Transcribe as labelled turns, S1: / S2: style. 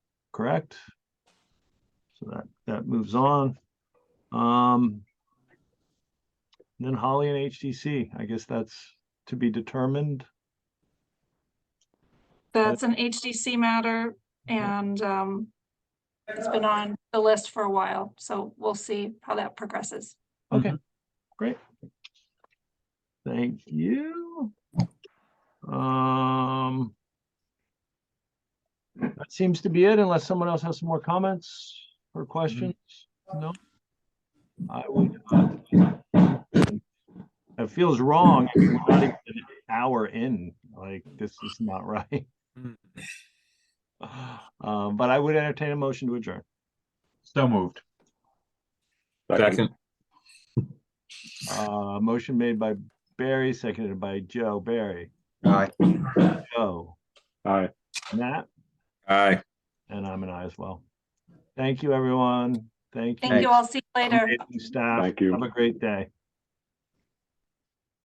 S1: correct? So that, that moves on. Um. Then Holly and HTC, I guess that's to be determined.
S2: That's an HDC matter and um it's been on the list for a while, so we'll see how that progresses.
S1: Okay, Mm-hmm. great. Thank you. Um. That seems to be it unless someone else has some more comments or questions. No? I would. uh, It feels wrong. I mean, We're not even an hour in, like this is not right.
S3: Mm.
S1: Um, but I would entertain a motion to adjourn.
S4: So moved.
S3: Second.
S1: Uh, motion made by Barry, seconded by Joe. Barry,
S4: Aye.
S1: Joe,
S4: Aye.
S1: Matt,
S3: Aye.
S1: and I'm an I as well. Thank you, everyone. Thank you.
S2: Thank you. I'll see you later.
S1: Amazing Staff.
S4: Thank you.
S1: Have a great day.